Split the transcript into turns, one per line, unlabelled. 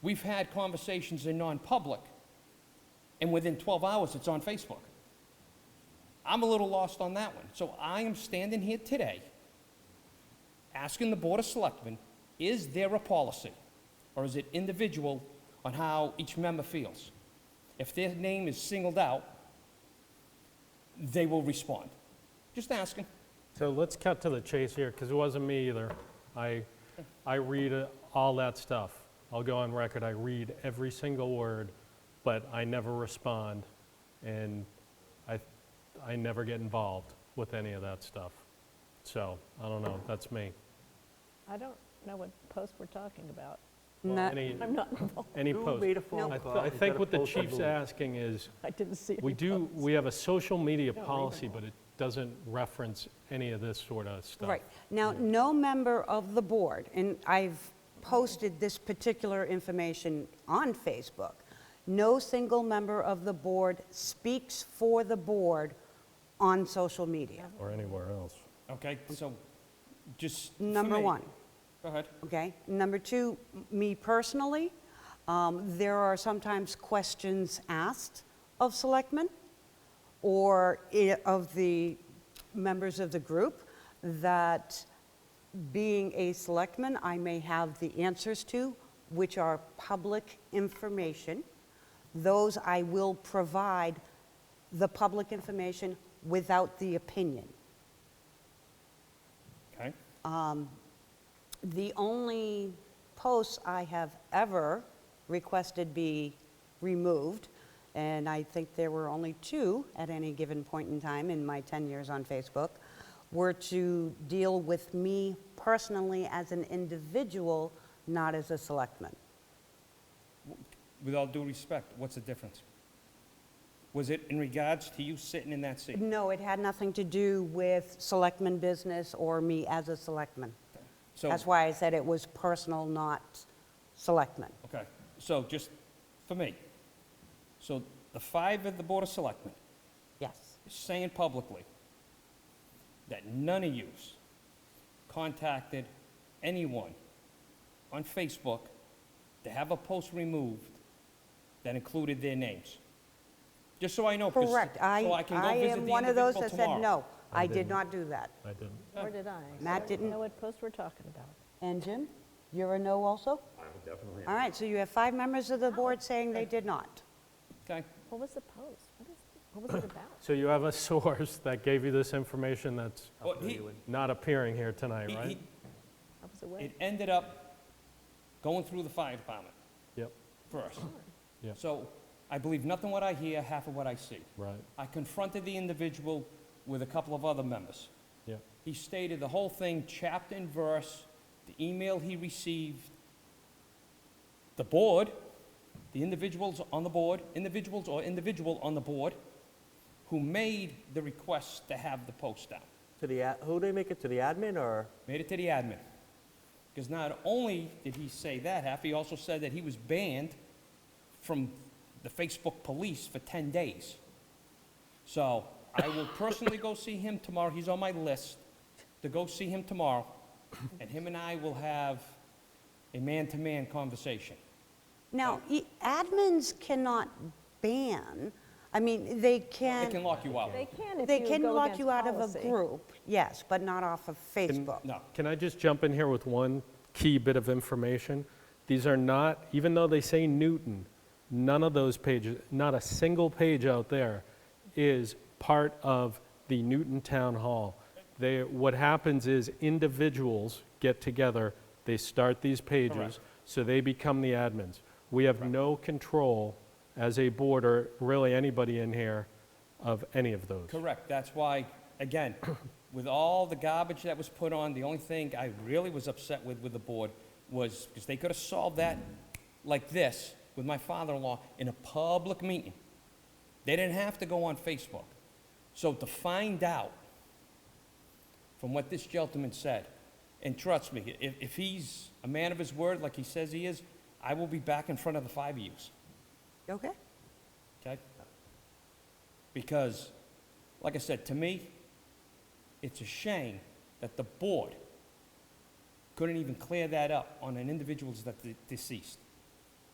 We've had conversations in non-public, and within 12 hours, it's on Facebook. I'm a little lost on that one. So I am standing here today asking the Board of Selectmen, is there a policy? Or is it individual on how each member feels? If their name is singled out, they will respond. Just asking.
So let's cut to the chase here, because it wasn't me either. I, I read uh, all that stuff. I'll go on record, I read every single word, but I never respond, and I, I never get involved with any of that stuff. So, I don't know, that's me.
I don't know what post we're talking about.
Well,
Not-
Any,
I'm not involved.
any
Who
post.
made a
No.
phone
I th-
call?
I
Is that
think
a
what the
post or
chief's
move?
asking is,
I didn't see it.
we do, we have a social media
don't read
policy,
them all.
but it doesn't reference any of this sort of stuff.
Right. Now, no member of the board, and I've posted this particular information on Facebook, no single member of the board speaks for the board on social media,
Or anywhere else.
Okay, so just. for
number
me-
one,
Go ahead.
okay? Number two, m- me personally, um, there are sometimes questions asked of selectmen or i- of the members of the group that being a selectman, I may have the answers to, which are public information. Those I will provide the public information without the opinion.
Okay.
The only posts I have ever requested be removed, and I think there were only two at any given point in time in my 10 years on Facebook, were to deal with me personally as an individual, not as a selectman.
With all due respect, what's the difference? Was it in regards to you sitting in that seat?
No, it had nothing to do with selectman business or me as a selectman.
So-
That's why I said it was personal, not selectman.
Okay, so just for me, so the five at the Board of Selectmen
Yes,
is saying publicly that none of yous contacted anyone on Facebook to have a post removed that included their names. Just so I know. 'cause-
correct.
So
I,
I can go
I
visit
am
the
one of those
individual
that said,
tomorrow.
no, I did not do that.
I didn't.
Or did I? So
Matt
I
didn't-
know what post we're talking about.
And Jim, you're a no also? I'm definitely. All right, so you have five members of the board saying they did not.
Okay,
What was the post? What is, what was it about?
So you have a source that gave you this information that's
Well, he-
not appearing here tonight,
He-
right?
I was
he- it
away.
ended up going through the fire department
Yep,
first.
Yep.
So I believe nothing what I hear, half of what I see.
right,
I confronted the individual with a couple of other members.
yep.
He stated the whole thing, chapter and verse, the email he received, the board, the individuals on the board, individuals or individual on the board, who made the request to have the post down.
To the, ad- who they make it, to the admin or?
Made it to the admin. Because not only did he say that half, he also said that he was banned from the Facebook police for 10 days. So I will personally go see him tomorrow. He's on my list to go see him tomorrow. And him and I will have a man-to-man conversation.
Now, e- admins cannot ban, I mean,
They
they
can
can,
lock you out.
They can if
they
you
can
go
lock
against
you out of a
policy.
group, yes, but not off of Facebook.
No.
Can I just jump in here with one key bit of information? These are not, even though they say Newton, none of those pages, not a single page out there is part of the Newton Town Hall. They, what happens is individuals get together, they start these pages,
Correct.
so they become the admins. We have no control as a board or really anybody in here of any of those.
Correct, that's why, again, with all the garbage that was put on, the only thing I really was upset with, with the board, was, because they could have solved that like this, with my father-in-law, in a public meeting. They didn't have to go on Facebook. So to find out from what this gentleman said, and trust me, if, if he's a man of his word, like he says he is, I will be back in front of the five of yous
Okay?
okay? Because, like I said, to me, it's a shame that the board couldn't even clear that up on an individual's that de- deceased.